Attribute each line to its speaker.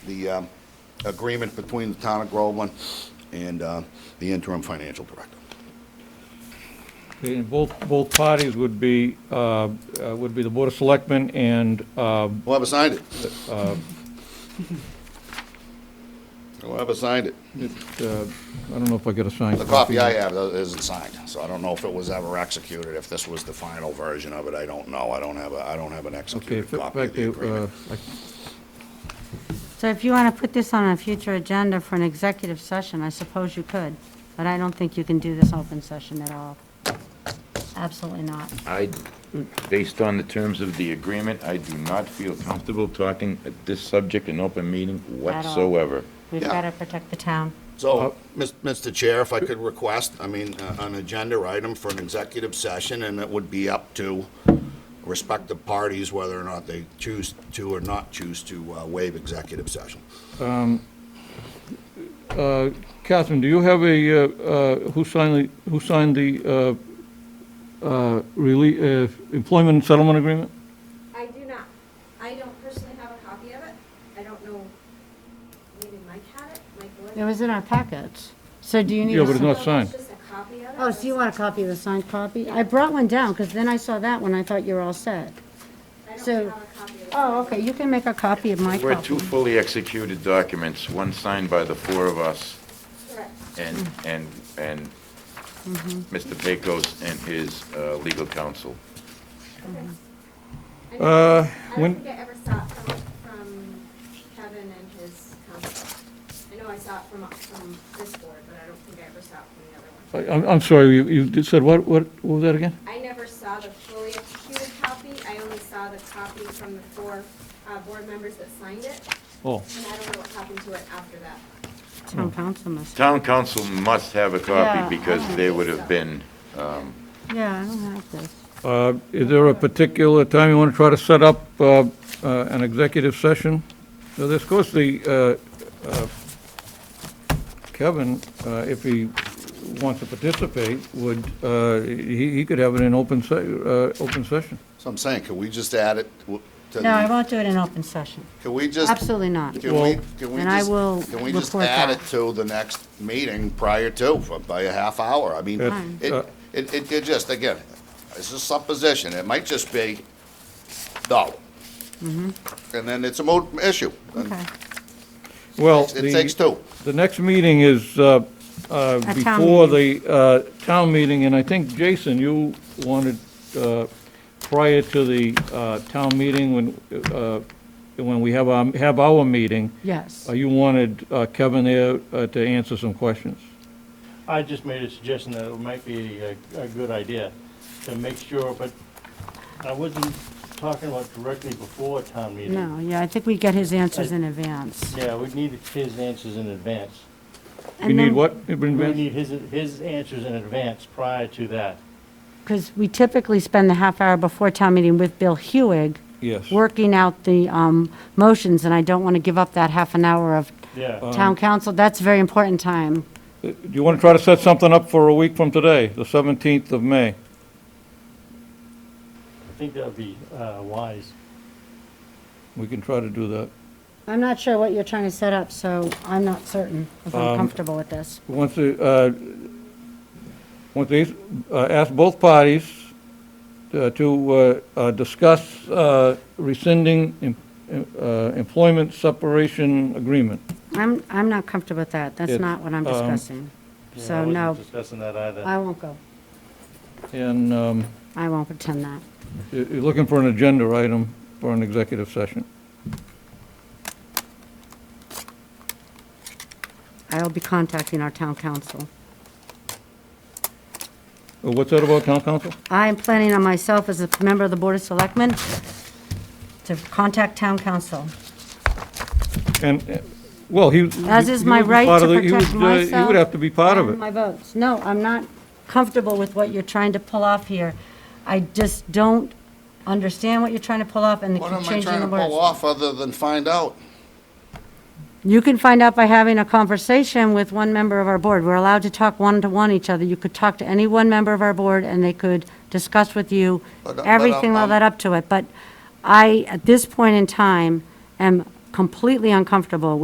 Speaker 1: the um, agreement between the town of Groveland and uh, the interim financial director.
Speaker 2: Okay, And both, both parties would be, uh, uh, would be the Board of Selectmen and, uh,
Speaker 1: Whoever signed it. Whoever signed it.
Speaker 2: it, uh, I don't know if I got a signed
Speaker 1: The copy I have uh, isn't signed, so I don't know if it was ever executed, if this was the final version of it, I don't know. I don't have, a I don't have an
Speaker 2: Okay, in
Speaker 1: executed
Speaker 2: fact,
Speaker 1: copy of the
Speaker 2: uh,
Speaker 1: agreement.
Speaker 2: I-
Speaker 3: So if you want to put this on a future agenda for an executive session, I suppose you could, but I don't think you can do this open session at all. Absolutely not.
Speaker 4: I, based on the terms of the agreement, I do not feel comfortable talking at this subject in open meeting
Speaker 3: At all.
Speaker 4: whatsoever.
Speaker 3: We've
Speaker 1: Yeah.
Speaker 3: got to protect the town.
Speaker 1: So, Mis- Mr. Chair, if I could request, I mean, uh, an agenda item for an executive session, and it would be up to respective parties whether or not they choose to or not choose to uh, waive executive session.
Speaker 2: uh, Catherine, do you have a, uh, uh, who signed the, who signed the uh, uh, rele- uh, employment and settlement agreement?
Speaker 5: I do not. I don't personally have a copy of it. I don't know, maybe Mike had it, Mike
Speaker 3: It
Speaker 5: would.
Speaker 3: was in our packets. So do you need?
Speaker 2: Yeah,
Speaker 3: a
Speaker 2: but it's
Speaker 3: sign-
Speaker 2: not signed.
Speaker 5: Just a copy of it.
Speaker 3: Oh, so you want a copy of the signed copy? I brought one down, because then I saw that one, I thought you were all set.
Speaker 5: I
Speaker 3: so-
Speaker 5: don't have a copy of it.
Speaker 3: Oh, okay, you can make a copy of my
Speaker 4: There were two
Speaker 3: copy.
Speaker 4: fully executed documents, one signed by the four of us
Speaker 5: Correct.
Speaker 4: and,
Speaker 3: Mm.
Speaker 4: and, and
Speaker 3: Mm-hmm.
Speaker 4: Mr. Pecos and his uh, legal counsel.
Speaker 5: I don't-
Speaker 2: Uh,
Speaker 5: I don't
Speaker 2: When,
Speaker 5: think I ever saw it from, from Kevin and his counsel. I know I saw it from, from this board, but I don't think I ever saw it from the other one.
Speaker 2: I- I'm, I'm sorry, you, you just said what, what, what was that again?
Speaker 5: I never saw the fully executed copy. I only saw the copy from the four, uh, board members that signed it.
Speaker 2: Oh,
Speaker 5: And I don't know what happened to it after that.
Speaker 3: Town council must.
Speaker 4: Town council must have a
Speaker 3: Yeah, I
Speaker 4: copy because
Speaker 3: don't
Speaker 4: they
Speaker 5: think
Speaker 4: would
Speaker 5: so.
Speaker 4: have been,
Speaker 3: Yeah, I don't have this.
Speaker 2: uh, is there a particular time you want to try to set up uh, uh, an executive session? Now, this goes the, uh, uh, Kevin, uh, if he wants to participate, would, uh, he he could have it in open, se- uh, open session.
Speaker 1: So I'm saying, can we just add it w- to
Speaker 3: No, I
Speaker 1: the,
Speaker 3: won't do it in open session.
Speaker 1: can we just?
Speaker 3: Absolutely not.
Speaker 1: Can we, can we
Speaker 3: And I
Speaker 1: just,
Speaker 3: will
Speaker 1: can we just
Speaker 3: report
Speaker 1: add it
Speaker 3: that.
Speaker 1: to the next meeting prior to, for- by a half hour? I mean,
Speaker 2: It-
Speaker 1: it,
Speaker 2: uh,
Speaker 1: it, it it just, again, it's just supposition, it might just be, no.
Speaker 3: Mm-hmm.
Speaker 1: And then it's a moot issue. And
Speaker 3: Okay.
Speaker 2: Well,
Speaker 1: It takes
Speaker 2: the,
Speaker 1: two.
Speaker 2: the next meeting is uh, uh,
Speaker 3: town
Speaker 2: before the uh, town meeting, and I think, Jason, you wanted, uh, prior to the uh, town meeting, when, uh, when we have our, have our meeting,
Speaker 3: Yes.
Speaker 2: uh, you wanted uh, Kevin there uh, to answer some questions.
Speaker 6: I just made a suggestion that it might be a, a good idea to make sure, but I wasn't talking about directly before town meeting.
Speaker 3: No, yeah, I think we get his answers in advance.
Speaker 6: Yeah, we need his answers in advance.
Speaker 2: You need what?
Speaker 6: We need his, his answers in advance prior to that.
Speaker 3: Because we typically spend the half hour before town meeting with Bill Hewig,
Speaker 2: Yes.
Speaker 3: working out the um, motions, and I don't want to give up that half an hour of
Speaker 6: Yeah,
Speaker 3: town council. That's a very important time.
Speaker 2: Do you want to try to set something up for a week from today, the 17th of May?
Speaker 6: I think that would be, uh, wise.
Speaker 2: We can try to do that.
Speaker 3: I'm not sure what you're trying to set up, so I'm not certain if
Speaker 6: Um,
Speaker 3: I'm comfortable with this.
Speaker 2: Once, the, uh, once these, uh, ask both parties uh, to uh, uh, discuss uh, rescinding em- em- uh, employment separation agreement.
Speaker 3: I'm, I'm not comfortable with that. That's
Speaker 2: It-
Speaker 3: not what I'm discussing.
Speaker 6: um, Yeah, I
Speaker 3: So,
Speaker 6: wasn't
Speaker 3: no,
Speaker 6: Discussing that either.
Speaker 3: I won't go.
Speaker 2: And um,
Speaker 3: I won't pretend that.
Speaker 2: you- you're looking for an agenda item for an executive session.
Speaker 3: I will be contacting our town council.
Speaker 2: Uh, What's that about, town council?
Speaker 3: I am planning on myself as a member of the Board of Selectmen to contact town council.
Speaker 2: And, uh, well, he.
Speaker 3: As is
Speaker 2: he
Speaker 3: my
Speaker 2: would be
Speaker 3: right
Speaker 2: part
Speaker 3: to
Speaker 2: of the- he would,
Speaker 3: protect
Speaker 2: uh, He
Speaker 3: myself
Speaker 2: would have to be part of
Speaker 3: and
Speaker 2: it.
Speaker 3: My votes. No, I'm not comfortable with what you're trying to pull off here. I just don't understand what you're trying to pull off and the
Speaker 1: What
Speaker 3: keep
Speaker 1: am I
Speaker 3: changing
Speaker 1: trying
Speaker 3: the
Speaker 1: to pull
Speaker 3: words.
Speaker 1: off other than find out?
Speaker 3: You can find out by having a conversation with one member of our board. We're allowed to talk one-to-one each other. You could talk to any one member of our board and they could discuss with you
Speaker 1: But, uh, but,
Speaker 3: everything
Speaker 1: um,
Speaker 3: that
Speaker 1: um,
Speaker 3: led up to it. But I, at this point in time, am completely uncomfortable